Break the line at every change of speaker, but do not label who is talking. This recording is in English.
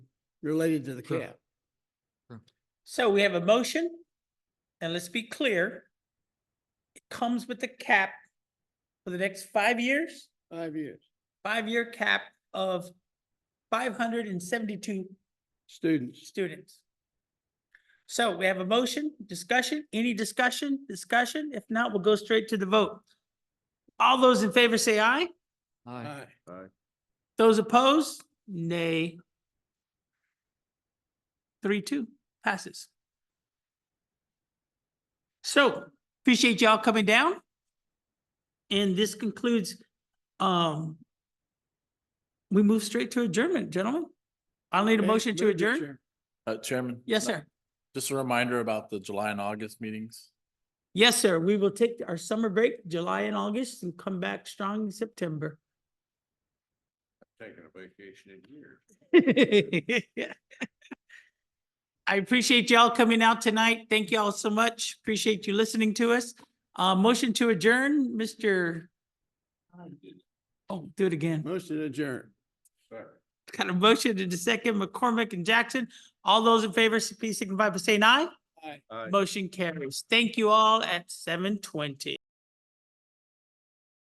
related to the
Sure.
cap.
So we have a motion, and let's be clear. It comes with a cap for the next five years,
Five years,
five-year cap of five hundred and seventy-two
students.
students. So we have a motion, discussion, any discussion, discussion? If not, we'll go straight to the vote. All those in favor say aye.
Aye.
Aye.
Those opposed, nay. Three, two, passes. So appreciate y'all coming down. And this concludes, um, we move straight to adjournment, gentlemen. I'll need a
Okay,
motion to
move it,
adjourn.
Chair.
Uh, Chairman?
Yes,
no-
sir.
Just a reminder about the July and August meetings.
Yes, sir. We will take our summer break, July and August, and come back strong in September.
Taking a vacation in here.
I appreciate y'all coming out tonight. Thank y'all so much. Appreciate you listening to us. Uh, motion to adjourn, Mr. Oh, do it again.
Motion to adjourn.
Got a motion to the second, McCormick and Jackson. All those in favor, please signify by saying aye.
Aye.
Motion carries. Thank you all at seven twenty.